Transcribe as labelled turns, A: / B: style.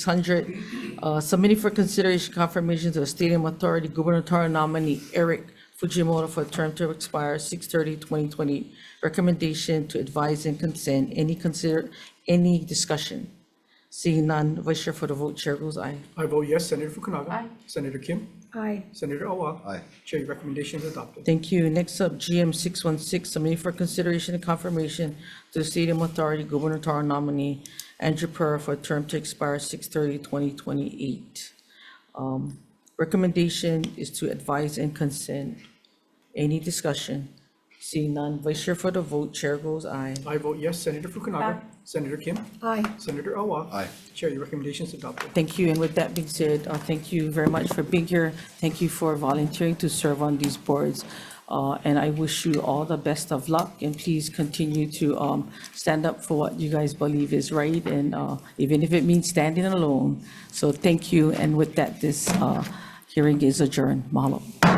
A: 600, uh, submitting for consideration confirmation to the Stadium Authority gubernatorial nominee Eric Fujimoto for a term to expire 6/30/2020. Recommendation to advise and consent. Any consider, any discussion? Seeing none, Vice Chair for the vote, Chair goes aye.
B: I vote yes. Senator Fukunaga. Senator Kim.
C: Aye.
B: Senator Awab.
D: Aye.
B: Chair, your recommendation is adopted.
A: Thank you. Next up, GM 616, submitting for consideration and confirmation to the Stadium Authority gubernatorial nominee Andrew Pearl for a term to expire 6/30/2028. Um, Recommendation is to advise and consent. Any discussion? Seeing none, Vice Chair for the vote, Chair goes aye.
B: I vote yes. Senator Fukunaga. Senator Kim.
C: Aye.
B: Senator Awab.
D: Aye.
B: Chair, your recommendation is adopted.
A: Thank you. And with that being said, uh, thank you very much for being here. Thank you for volunteering to serve on these boards. Uh, And I wish you all the best of luck and please continue to um, stand up for what you guys believe is right and uh, even if it means standing alone. So thank you. And with that, this uh, hearing is adjourned. Mahalo.